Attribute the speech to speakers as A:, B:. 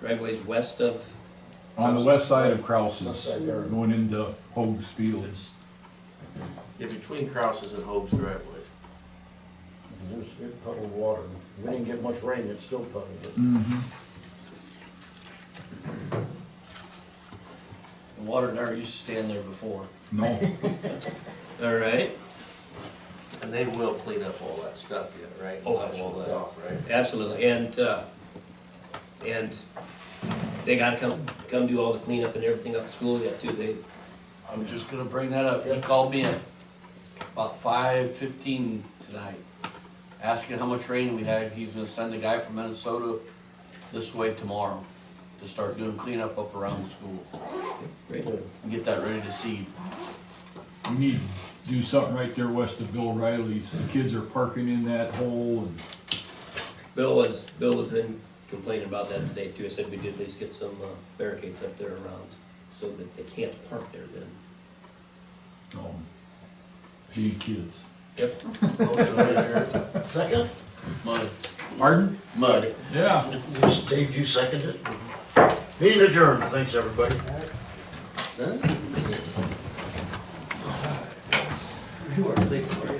A: driveways west of,
B: On the west side of Krause's,
C: West side there.
B: going into Hogs Field, it's,
D: Yeah, between Krause's and Hope's driveways.
C: It was, it puddled water. We didn't get much rain, it still puddled.
E: The water never used to stand there before.
B: no,
A: all right,
D: And they will clean up all that stuff yet, right?
A: Oh,
D: Level All that off, right?
A: absolutely, and, uh, and they gotta come, come do all the cleanup and everything up at school yet too, they,
E: I was just gonna bring that up, he called me at about five fifteen tonight, asking how much rain we had, he's gonna send a guy from Minnesota this way tomorrow to start doing cleanup up around the school, and get that ready to seed.
B: we need to do something right there west of Bill Riley's, the kids are parking in that hole and.
A: Bill was, Bill was in complaining about that today too, I said we did at least get some uh, barricades up there around, so that they can't park there then.
B: um, being kids.
A: Yep,
D: Motion to adjourn.
C: Second?
E: Mud,
B: Pardon?
E: mud.
B: Yeah.
C: Dave, you seconded? Meeting adjourned, thanks, everybody.
D: You are thinking.